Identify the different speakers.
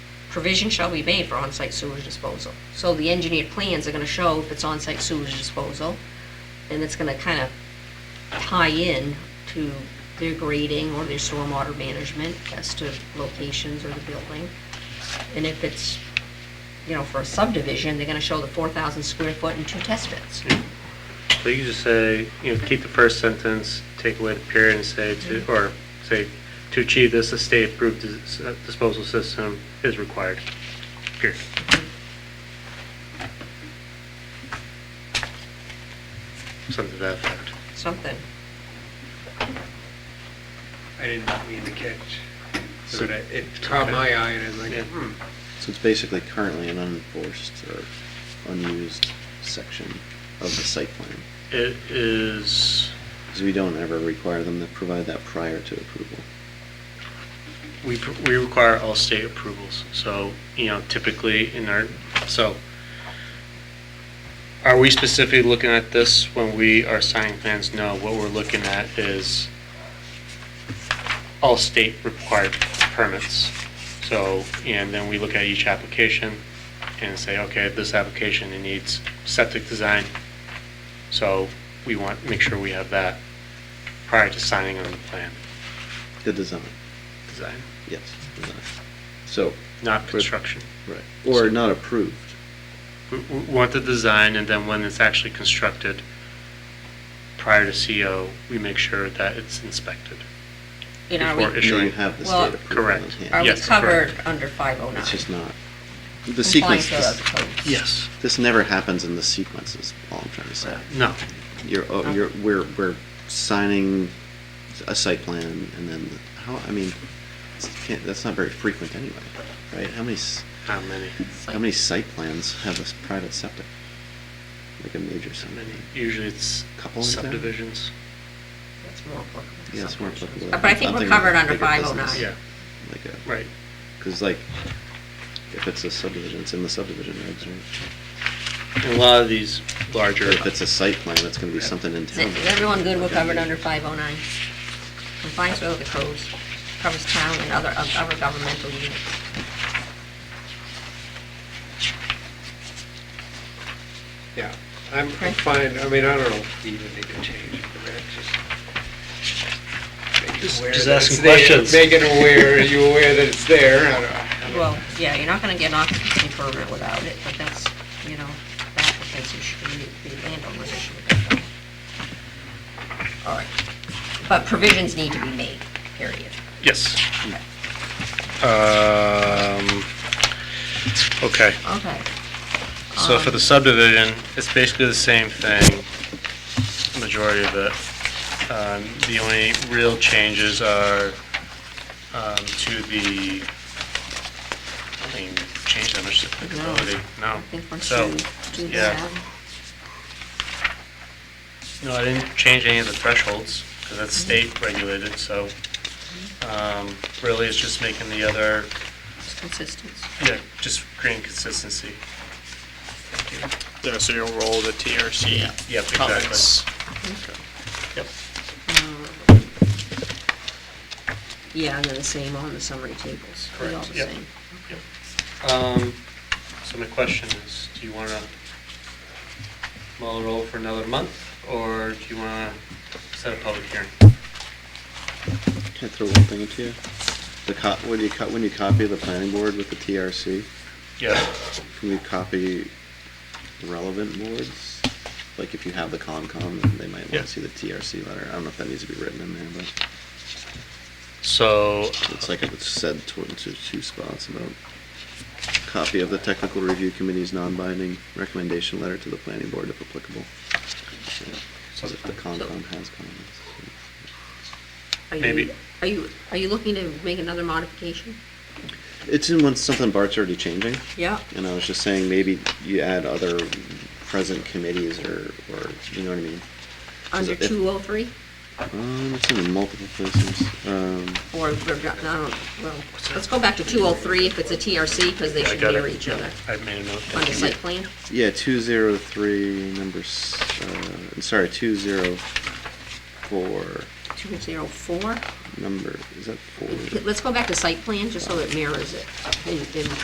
Speaker 1: Provision shall be made for on-site sewage disposal. So the engineered plans are gonna show if it's on-site sewage disposal, and it's gonna kind of tie in to their grading or their stormwater management as to locations or the building. And if it's, you know, for a subdivision, they're gonna show the four thousand square foot and two test pits.
Speaker 2: So you can just say, you know, keep the first sentence, take away the period and say to, or say, to achieve this, a state-approved dis- uh, disposal system is required. Period. Something to that effect.
Speaker 1: Something.
Speaker 3: I did not mean to catch. So that it caught my eye and I was like,
Speaker 2: Yeah.
Speaker 3: hmm.
Speaker 4: So it's basically currently an unenforced or unused section of the site plan.
Speaker 2: It is,
Speaker 4: Because we don't ever require them to provide that prior to approval.
Speaker 2: we, pr- we require all state approvals, so, you know, typically in our, so, are we specifically looking at this when we are signing plans? No, what we're looking at is all state required permits. So, and then we look at each application and say, okay, this application, it needs septic design, so we want, make sure we have that prior to signing on the plan,
Speaker 4: The design,
Speaker 2: design,
Speaker 4: yes, design. So,
Speaker 2: not construction.
Speaker 4: right, or not approved.
Speaker 2: We we want the design, and then when it's actually constructed, prior to CO, we make sure that it's inspected.
Speaker 1: You know, are
Speaker 2: Before
Speaker 1: we,
Speaker 2: it-
Speaker 4: Now you
Speaker 2: Issuing.
Speaker 4: have the
Speaker 1: Well,
Speaker 4: state approval in
Speaker 2: Correct.
Speaker 4: hand.
Speaker 1: are we
Speaker 2: Yes, correct.
Speaker 1: covered under five oh nine?
Speaker 4: It's just not, the sequence, this-
Speaker 2: Yes.
Speaker 4: this never happens in the sequence is all I'm trying to say.
Speaker 2: No,
Speaker 4: You're, oh, you're, we're, we're signing a site plan and then, how, I mean, it's- can't, that's not very frequent anyway, right? How many, s-
Speaker 2: how many?
Speaker 4: how many site plans have a s- private septic? Like a major
Speaker 2: How
Speaker 4: septic?
Speaker 2: many? Usually it's
Speaker 4: Couple is there?
Speaker 2: subdivisions.
Speaker 1: That's more applicable. to
Speaker 4: Yeah, it's more
Speaker 1: subdivisions.
Speaker 4: applicable.
Speaker 1: Uh, But I think
Speaker 4: I'm
Speaker 1: we're
Speaker 4: thinking of
Speaker 1: covered under
Speaker 4: bigger
Speaker 1: five oh nine.
Speaker 4: business.
Speaker 2: Yeah,
Speaker 4: Like a,
Speaker 2: right.
Speaker 4: cause like, if it's a subdivision, it's in the subdivision regs, right?
Speaker 2: And a lot of these larger,
Speaker 4: Or if it's a site plan, it's gonna be something in
Speaker 1: Is
Speaker 4: town.
Speaker 1: it- is everyone good, we're
Speaker 4: Okay.
Speaker 1: covered under 509? Compliance with other codes, covers town and other, of other governmental units.
Speaker 3: yeah, I'm I'm
Speaker 1: Okay.
Speaker 3: fine. I mean, I don't know if we even need to change it, but it's just. make it
Speaker 2: Just-
Speaker 3: aware
Speaker 2: just
Speaker 3: that
Speaker 2: asking
Speaker 3: it's there.
Speaker 2: questions.
Speaker 3: Make it aware, are you aware that it's there? I don't- I don't-
Speaker 1: Well, yeah, you're not gonna get an occupancy permit without it, but that's, you know, the applicant's issue, the- the landowner's issue. with that, though. All right, but provisions need to be made, period.
Speaker 2: yes. Um, okay.
Speaker 1: Okay,
Speaker 2: So for the subdivision, it's basically the same thing, majority of it. Um, The only real changes are um, to the, I don't think we changed that much to applicability, no.
Speaker 1: I think once
Speaker 2: So,
Speaker 1: you do
Speaker 2: yeah.
Speaker 1: that,
Speaker 2: no, I didn't change any of the thresholds, because that's
Speaker 1: Mm-hmm.
Speaker 2: state regulated, so um, really it's just making the other,
Speaker 1: it's consistent.
Speaker 2: yeah, just creating consistency.
Speaker 5: Yeah, so you'll roll the TRC
Speaker 2: Yep, exactly.
Speaker 5: comments.
Speaker 2: Yep.
Speaker 1: Yeah, and then the same on the summary tables, they're all
Speaker 2: Correct,
Speaker 1: the
Speaker 2: yep.
Speaker 1: same.
Speaker 2: Um, so my question is, do you wanna mull it over for another month, or do you wanna set a public hearing?
Speaker 4: Can I throw one thing into you? The co, when you co, when you copy the planning board with the TRC,
Speaker 2: Yeah.
Speaker 4: can we copy relevant boards? Like if you have the Concom, then they might
Speaker 2: Yeah.
Speaker 4: wanna see the TRC letter. I don't know if that needs to be written in there, but
Speaker 2: So,
Speaker 4: it's like it was said to, to two spots about copy of the technical review committee's non-binding recommendation letter to the planning board if applicable. So if the Concom has comments.
Speaker 1: Are you-
Speaker 2: Maybe.
Speaker 1: Are you, are you looking to make another modification?
Speaker 4: It's in one, something Bart's already changing.
Speaker 1: Yeah.
Speaker 4: And I was just saying, maybe you add other present committees or, or, you know what I mean?
Speaker 1: Under
Speaker 4: Is it-
Speaker 1: 203,
Speaker 4: Um, it's in multiple places. Um,
Speaker 1: or, we're not- no, well, let's go back to 203 if it's a TRC, because they
Speaker 2: I
Speaker 1: should
Speaker 2: got
Speaker 1: mirror
Speaker 2: it.
Speaker 1: each other.
Speaker 2: I made a note.
Speaker 1: Under site plan,
Speaker 4: yeah, two zero three, number, s- uh, I'm sorry, two zero four,
Speaker 1: 204.
Speaker 4: number, is that four?
Speaker 1: Let's go back to site plan, just so it mirrors it, and- and